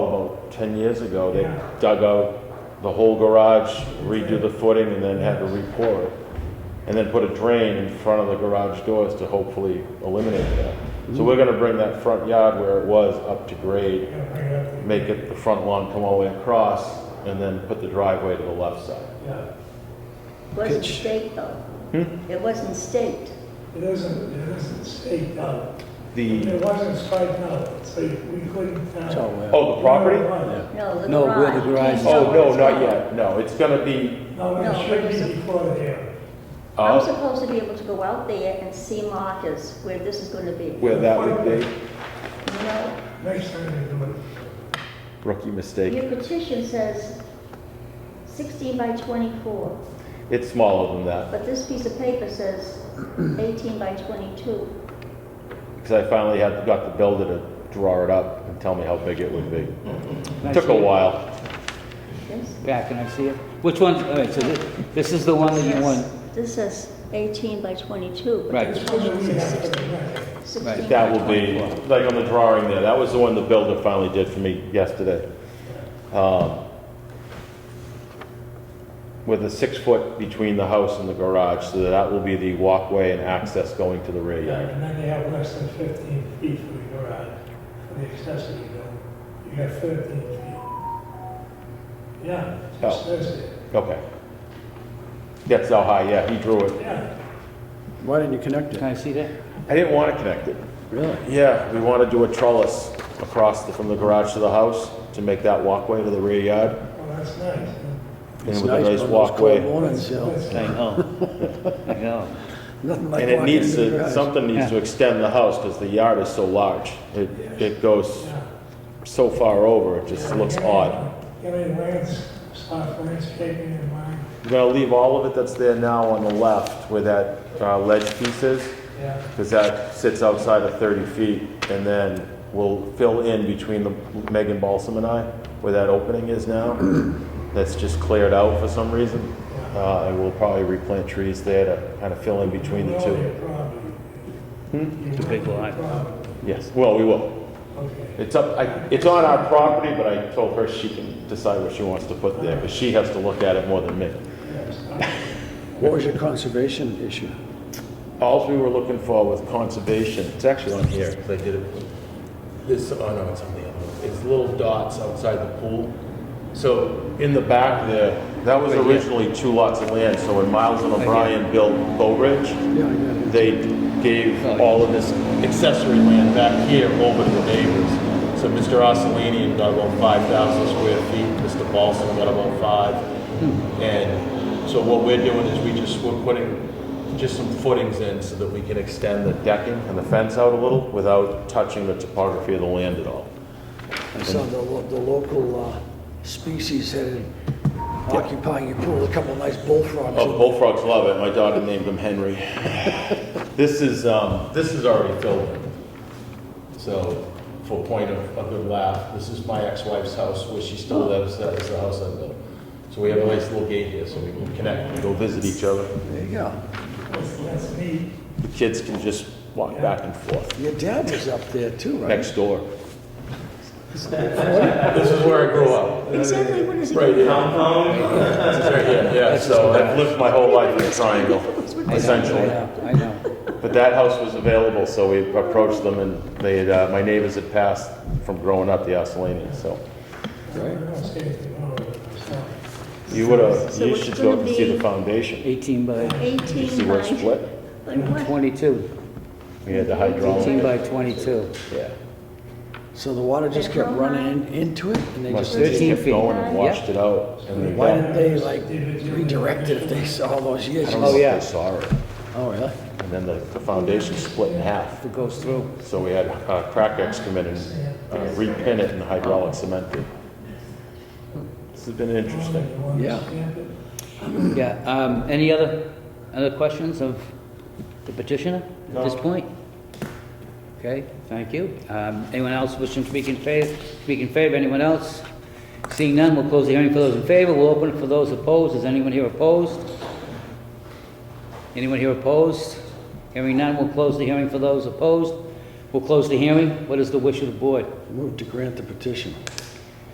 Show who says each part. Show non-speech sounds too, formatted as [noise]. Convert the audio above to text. Speaker 1: 10 years ago, they dug out the whole garage, redo the footing, and then had to re-pour it. And then put a drain in front of the garage doors to hopefully eliminate that. So we're gonna bring that front yard where it was up to grade,
Speaker 2: Yeah, bring it up.
Speaker 1: make it the front lawn come all the way across, and then put the driveway to the left side.
Speaker 2: Yeah.
Speaker 3: Wasn't
Speaker 4: Pitch.
Speaker 3: state though.
Speaker 4: Hmm?
Speaker 3: It wasn't state.
Speaker 2: It isn't, it isn't state now.
Speaker 1: The,
Speaker 2: It wasn't striped out, so we couldn't uh,
Speaker 4: It's
Speaker 2: tell.
Speaker 4: all well.
Speaker 1: oh, the property?
Speaker 3: No, the garage.
Speaker 4: No, where the garage is.
Speaker 1: Oh, no, not yet, no, it's gonna be,
Speaker 2: No,
Speaker 3: No,
Speaker 2: it
Speaker 3: but
Speaker 2: should
Speaker 3: it's a-
Speaker 2: be before there.
Speaker 3: I'm
Speaker 1: uh,
Speaker 3: supposed to be able to go out there and see markers where this is going to be.
Speaker 1: where that would be,
Speaker 3: No,
Speaker 2: Next time you do it.
Speaker 1: rookie mistake.
Speaker 3: your petition says 16 by 24,
Speaker 1: It's smaller than that.
Speaker 3: but this piece of paper says 18 by 22.
Speaker 1: Because I finally had, got the builder to draw it up and tell me how big it would be.
Speaker 4: Can I
Speaker 1: Took
Speaker 4: see
Speaker 1: a
Speaker 4: it?
Speaker 1: while.
Speaker 3: Yes?
Speaker 4: Back, can I see it? Which one, all right, so this, this is the one that you
Speaker 3: Yes.
Speaker 4: want,
Speaker 3: This says 18 by 22. but
Speaker 4: Right.
Speaker 3: the
Speaker 2: This was a we
Speaker 3: petition says
Speaker 2: have to correct.
Speaker 3: 16
Speaker 4: Right.
Speaker 3: by
Speaker 1: That will be, like on the drawing there, that was the one the builder finally did for me yesterday. Um, With a six foot between the house and the garage, so that will be the walkway and access going to the rear
Speaker 2: Yeah,
Speaker 1: yard.
Speaker 2: and then they have less than fifteen feet for the garage, for the accessory building. You got thirteen feet. Yeah, it just
Speaker 1: Oh.
Speaker 2: says it.
Speaker 1: Okay. That's how high, yeah, he drew it.
Speaker 2: Yeah,
Speaker 5: Why didn't you connect
Speaker 4: can
Speaker 5: it?
Speaker 4: I see that?
Speaker 1: I didn't want to connect it.
Speaker 5: Really?
Speaker 1: Yeah, we want to do a trellis across the- from the garage to the house to make that walkway to the rear yard.
Speaker 2: well, that's nice.
Speaker 1: And
Speaker 5: It's
Speaker 1: with a
Speaker 5: nice
Speaker 1: nice
Speaker 5: on those cold
Speaker 1: walkway.
Speaker 5: mornings, you know,
Speaker 2: That's-
Speaker 4: I know, I know.
Speaker 5: nothing like
Speaker 1: And it
Speaker 5: walking
Speaker 1: needs
Speaker 5: in the
Speaker 1: to,
Speaker 5: garage.
Speaker 1: something needs to extend the house because the yard is so large. It, it goes
Speaker 2: yeah.
Speaker 1: so far over, it just looks odd.
Speaker 2: Get any lands, soft landscaping in mind,
Speaker 1: We're gonna leave all of it that's there now on the left where that uh, ledge piece is,
Speaker 2: yeah.
Speaker 1: because that sits outside of 30 feet. And then we'll fill in between the Megan Balsam and I, where that opening is
Speaker 5: [clears throat]
Speaker 1: now. That's just cleared out for some reason. Uh, and we'll probably replant trees there to kind of fill in between the
Speaker 2: You own
Speaker 1: two.
Speaker 2: your property. You
Speaker 4: It's a big
Speaker 2: own your
Speaker 4: lot.
Speaker 2: property.
Speaker 1: Yes, well, we will.
Speaker 2: Okay.
Speaker 1: It's up, I, it's on our property, but I told her she can decide what she wants to put there, because she has to look at it more than me.
Speaker 5: What was your conservation issue?
Speaker 1: All we were looking for was conservation, it's actually on here, because I did it, this, oh no, it's on the other one, it's little dots outside the pool. So, in the back there, that was originally two lots of land, so when Miles and O'Brien built Bow Ridge,
Speaker 5: Yeah, I got it.
Speaker 1: they gave all of this accessory land back here over to the neighbors. So Mr. Ossolini got about five thousand square feet, Mr. Balsam got about five. And so what we're doing is we just, we're putting just some footings in so that we can extend the decking and the fence out a little without touching the topography of the land at all.
Speaker 5: I saw the, lo- the local uh, species had it occupying your pool, a couple of nice bullfrogs.
Speaker 1: Oh, bullfrogs love it. My daughter named him Henry. [laughs] this is um, this is already filled. in. So, for point of a good laugh, this is my ex-wife's house where she still lives. That is the house I built. So we have a nice little gate here, so we can connect and go visit each other.
Speaker 5: There you go.
Speaker 2: That's, that's neat.
Speaker 1: The kids can just walk back and forth
Speaker 5: Your dad was up there too, right?
Speaker 1: next door. this is where I grew up.
Speaker 3: Exactly, what is it?
Speaker 1: Right here. This is right here. Yeah. So I've lived my whole life in a triangle,
Speaker 4: I know,
Speaker 1: essentially.
Speaker 4: I know, I know.
Speaker 1: But that house was available, so we approached them, and they had, uh, my neighbors had passed from growing up the Ossalinians, so
Speaker 2: I don't see anything wrong with it myself.
Speaker 1: you would have,
Speaker 3: So
Speaker 1: you
Speaker 3: it's
Speaker 1: should go up and see
Speaker 3: gonna
Speaker 1: the
Speaker 3: be-
Speaker 1: foundation.
Speaker 4: 18 by
Speaker 3: 18
Speaker 1: You
Speaker 3: by...
Speaker 1: see where it's split?
Speaker 3: But what?
Speaker 4: 22,
Speaker 1: We had the
Speaker 4: 18
Speaker 1: hydraulic,
Speaker 4: by 22,
Speaker 1: yeah.
Speaker 5: So the water just kept running in- into it and they
Speaker 1: Must
Speaker 5: just,
Speaker 1: have just
Speaker 4: 13
Speaker 1: kept
Speaker 4: feet.
Speaker 1: going and washed it out. and they
Speaker 5: why
Speaker 1: got-
Speaker 5: didn't they like redirect it if they saw all those years?
Speaker 1: I don't know if
Speaker 4: Oh, yeah.
Speaker 1: They saw it,
Speaker 5: Oh, really?
Speaker 1: and then the, the foundation split in half,
Speaker 4: it goes through.
Speaker 1: so we had, uh, crack ex come in and, uh, repin it and hydraulic cement it. This has been interesting.
Speaker 2: You want to
Speaker 5: Yeah.
Speaker 2: stamp it?
Speaker 4: Yeah, um, any other, other questions of the petitioner at this
Speaker 1: No.
Speaker 4: point? Okay, thank you. Um, anyone else wishing to speak in favor, speak in favor, anyone else? Seeing none, we'll close the hearing for those in favor, we'll open it for those opposed, is anyone here opposed? Anyone here opposed? Hearing none, we'll close the hearing for those opposed. We'll close the hearing, what is the wish of the board?
Speaker 5: Move to grant the petition.